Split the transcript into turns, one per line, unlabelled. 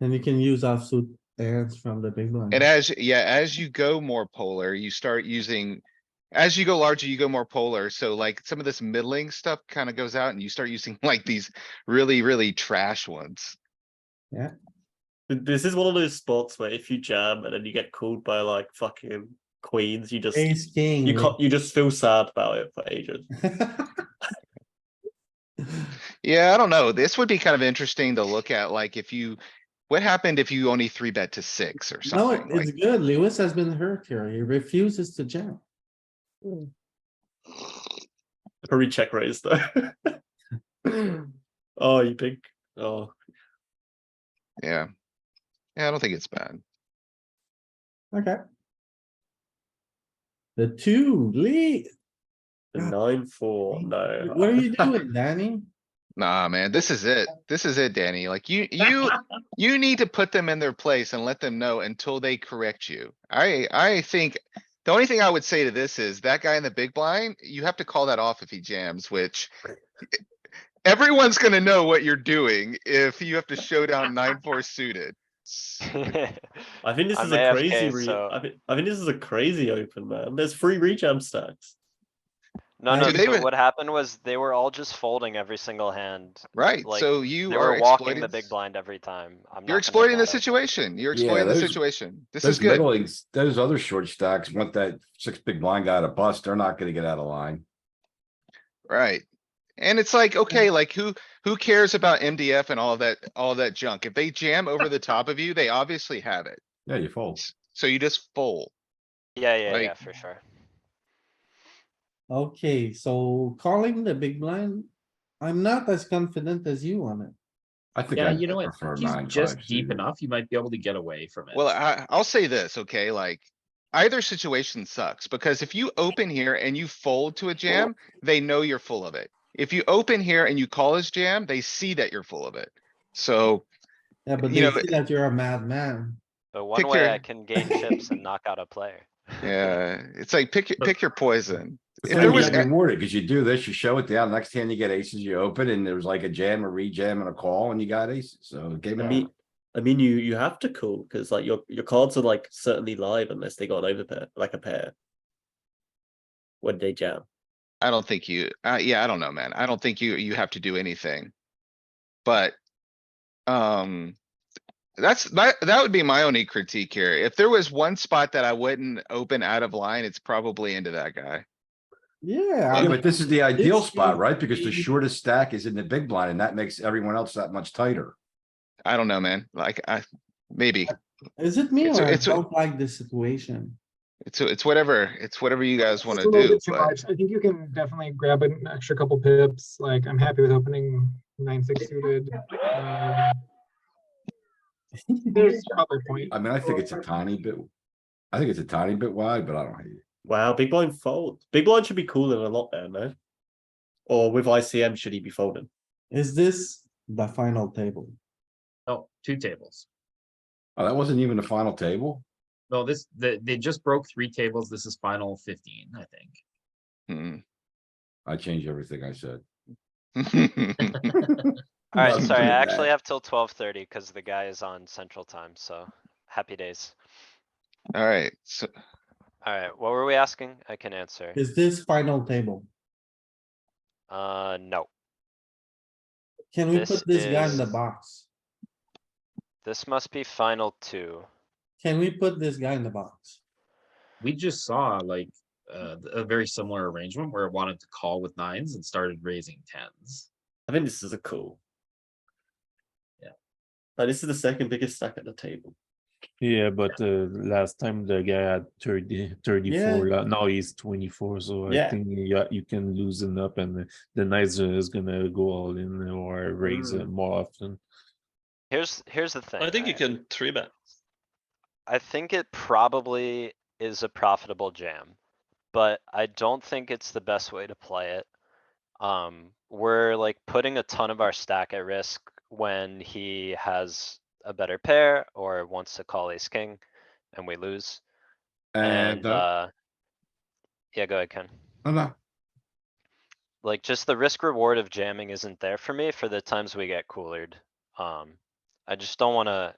And you can use offsuit hands from the big blind.
And as, yeah, as you go more polar, you start using, as you go larger, you go more polar. So like some of this middling stuff kind of goes out and you start using like these really, really trash ones.
Th- This is one of those spots where if you jam and then you get called by like fucking queens, you just
Ace, king.
you can't you just feel sad about it for ages.
Yeah, I don't know. This would be kind of interesting to look at, like if you, what happened if you only three bet to six or
No,
something?
it's
Like,
good. Lewis has been hurt here. He refuses to jam.
Probably check raise though. oh, you think? Oh,
yeah. Yeah, I don't think it's bad.
Okay. The two, Lee,
the
God.
nine four. No,
what are you doing, Danny?
Nah, man, this is it. This is it, Danny. Like you, you, you need to put them in their place and let them know until they correct you. I, I think. The only thing I would say to this is that guy in the big blind, you have to call that off if he jams, which. Everyone's gonna know what you're doing if you have to show down nine, four suited.
I think this
I'm
is a crazy.
AFK,
Re-
so-
I, think, I think this is a crazy open man. There's three rejam stacks.
No, no,
Dude, they
so
were-
what happened was they were all just folding every single hand.
Right,
Like,
so you
They
are
were walking
exploiting,
the big
s-
blind every time. I'm not
you're
gonna
exploiting the
let it.
situation. You're
Yeah,
exploiting the
those-
situation. This is
Those
good.
middling, those other short stacks want that six big blind guy to bust. They're not gonna get out of line.
Right. And it's like, okay, like who, who cares about MDF and all that, all that junk? If they jam over the top of you, they obviously have it.
Yeah, you fold.
So you just fold.
Yeah, yeah,
Like-
yeah, for sure.
Okay, so calling the big blind, I'm not as confident as you on it.
I think.
Yeah,
I'd
you know what?
prefer
He's
nine
just
five
deep
suited.
enough. You might be able to get away from it.
Well, I, I'll say this, okay, like either situation sucks because if you open here and you fold to a jam, they know you're full of it. If you open here and you call his jam, they see that you're full of it. So
Yeah, but they
You know,
see that you're a madman.
But one
Pick
way
your-
I can gain chips and knock out a player.
yeah, it's like pick, your- pick your poison.
It's
If
gonna
there
be
was, a-
rewarded, cause you do this, you show it down, next hand you get aces, you open and there was like a jam, a rejam and a call and you got aces, so game
I
it
mean,
out.
I mean, you you have to call because like your your cards are like certainly live unless they got an overpair, like a pair. When they jam,
I don't think you, uh, yeah, I don't know, man. I don't think you, you have to do anything. But, um, that's, that, that would be my only critique here. If there was one spot that I wouldn't open out of line, it's probably into that guy.
Yeah.
Yeah,
I'm-
but this is the ideal
this
spot,
should
right? Because the
be-
shortest stack is in the big blind and that makes everyone else that much tighter.
I don't know, man. Like, I, maybe,
Is it me
It's a-
or I
it's a-
don't like this situation?
it's, it's whatever, it's whatever you guys
It's
wanna
a little
do,
bit too
but
much. I think you can definitely grab an extra couple pips. Like I'm happy with opening nine six suited. Um, There's probably a point.
I mean, I think it's a tiny bit, I think it's a tiny bit wide, but I don't hate it.
wow, big blind fold. Big blind should be calling a lot there, no? Or with ICM, should he be folding?
Is this the final table?
No, two tables.
Oh, that wasn't even the final table?
No, this, they, they just broke three tables. This is final fifteen, I think.
hmm.
I changed everything I said.
Alright,
Not
sorry, I
doing
actually
that.
have till twelve thirty because the guy is on central time, so happy days.
Alright, so,
Alright, what were we asking? I can answer.
Is this final table?
Uh, no,
Can we
This
put this guy in the
is-
box?
this must be final two.
Can we put this guy in the box?
We just saw like, uh, th- a very similar arrangement where it wanted to call with nines and started raising tens.
I think this is a call.
Yeah.
Like this is the second biggest stack at the table.
Yeah, but uh, last time the guy had 30, 34, la- now he's 24. So
Yeah.
I think yeah, you can loosen up and uh, the knights uh, is going to go all in or raise uh, more often.
Here's, here's the thing. right?
can three bet.
I think it probably is a profitable jam, but I don't think it's the best way to play it. Um, we're like putting a ton of our stack at risk when he has a better pair or wants to call ace king and we lose.
And,
And,
uh,
uh, yeah, go ahead, Ken.
no, no,
Like just the risk reward of jamming isn't there for me for the times we get coolered. Um, I just don't wanna,